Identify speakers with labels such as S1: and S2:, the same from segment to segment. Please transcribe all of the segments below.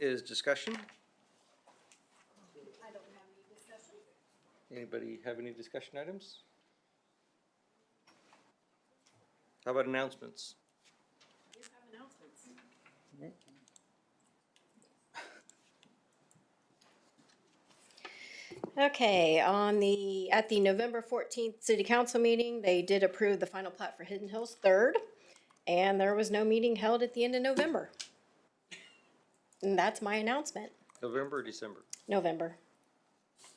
S1: is discussion. Anybody have any discussion items? How about announcements?
S2: Okay, on the, at the November fourteenth city council meeting, they did approve the final plat for Hidden Hills Third, and there was no meeting held at the end of November. And that's my announcement,
S1: November or December?
S2: November.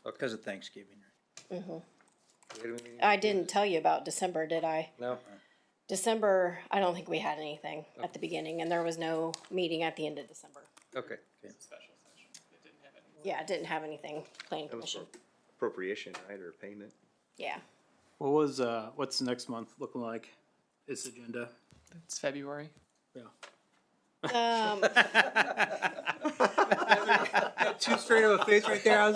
S3: Because of Thanksgiving.
S1: We had a meeting?
S2: I didn't tell you about December, did I?
S1: No,
S2: December, I don't think we had anything at the beginning, and there was no meeting at the end of December.
S1: okay.
S4: special session. It didn't have any.
S2: Yeah, I didn't have anything, planning
S1: That was
S2: commission,
S1: Appropriation, right, or payment?
S2: yeah.
S5: What was, uh, what's next month looking like? This agenda?
S4: It's February.
S2: Um,
S3: Too straight of a face right there. I was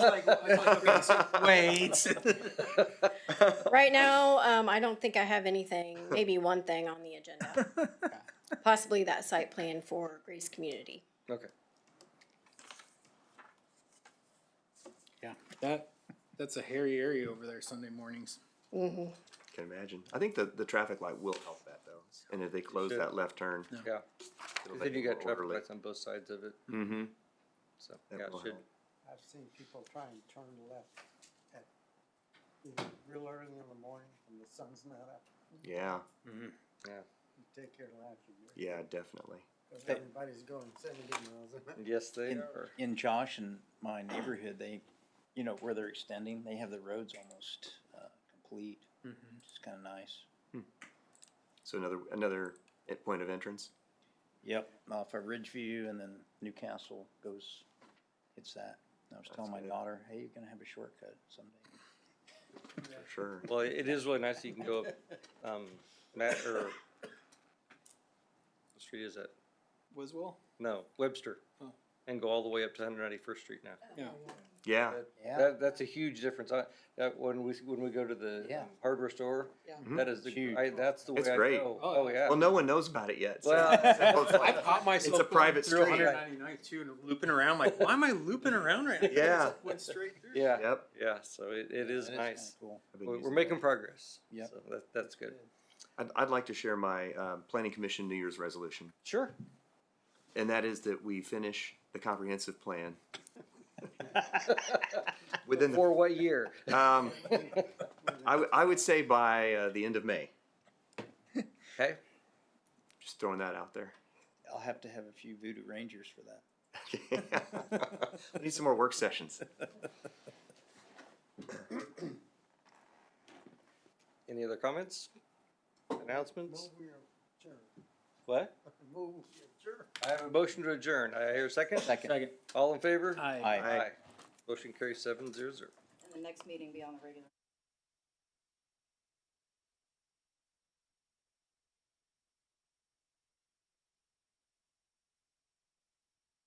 S3: like, wait.
S2: Right now, um, I don't think I have anything, maybe one thing on the agenda. Possibly that site plan for Grace Community.
S1: Okay.
S5: That, that's a hairy area over there Sunday mornings.
S2: Mm-hmm.
S6: Can imagine. I think the, the traffic light will help that though. And if they close
S1: should.
S6: that left turn.
S5: Yeah.
S1: Yeah, 'cause
S6: it'll make
S1: then you
S6: it more
S1: got traffic
S6: orderly.
S1: lights on both sides of it,
S6: Mhm.
S1: so,
S6: That
S1: yeah, it
S6: will
S1: should,
S6: help.
S7: I've seen people try and turn left at, you know, real early in the morning when the sun's not up,
S6: Yeah,
S7: you take your life. you-
S6: yeah, definitely.
S7: Cause everybody's going seventy miles an hour.
S1: yes, they
S3: In,
S1: are.
S3: in Josh and my neighborhood, they, you know, where they're extending, they have the roads almost, uh, complete.
S4: Mm-hmm.
S3: It's kinda nice.
S6: So another, another e- point of entrance.
S3: Yep, off of Ridgeview and then Newcastle goes, hits that. I was telling my
S6: good.
S3: daughter, hey, you're gonna have a shortcut someday.
S6: For sure.
S1: Well, it is really nice, that you can go up, um, Matt, or, what street is that?
S5: Wiswell?
S1: No, Webster,
S5: Oh.
S1: and go all the way up to Hundred Ninety-First Street now.
S5: Yeah.
S6: Yeah,
S1: That-
S3: Yeah,
S1: That, that's a huge difference, I, that, when we, when we go to the
S3: Yeah.
S1: um, hardware store,
S5: Yeah.
S1: that is the,
S3: Huge.
S1: I, that's the way
S6: Mm-hmm. It's
S1: I
S6: great.
S1: go,
S5: Oh,
S1: oh,
S5: yeah.
S1: yeah.
S6: well, no one knows about it yet. so-
S1: Well-
S6: so it's
S5: I
S6: like-
S5: caught myself.
S6: It's a
S5: going
S6: private
S5: through
S6: street.
S5: 199th too and looping around like, why am I looping around right now?
S6: Yeah.
S5: It's like Went straight through.
S1: Yeah,
S6: Yep.
S1: yeah, so it, it is
S3: that kinda
S1: nice,
S3: Cool.
S6: I've been
S1: we're, we're
S6: using
S1: making
S6: that.
S1: progress,
S3: Yep.
S1: so that, that's good.
S6: I'd, I'd like to share my, um, planning commission New Year's resolution.
S1: Sure.
S6: And that is that we finish the comprehensive plan. Within the
S1: For what year?
S6: Um, I, w- I would say by uh, the end of May.
S1: Okay,
S6: Just throwing that out there.
S3: I'll have to have a few Voodoo Rangers for that.
S6: I need some more work sessions.
S1: any other comments? Announcements?
S7: Move your chair,
S1: What?
S7: move your chair.
S1: I have a motion to adjourn, I hear a second?
S3: Second.
S5: Second.
S1: All in favor?
S5: Aye.
S3: Aye.
S1: Motion carries seven zero zero.
S8: and the next meeting be on the regular.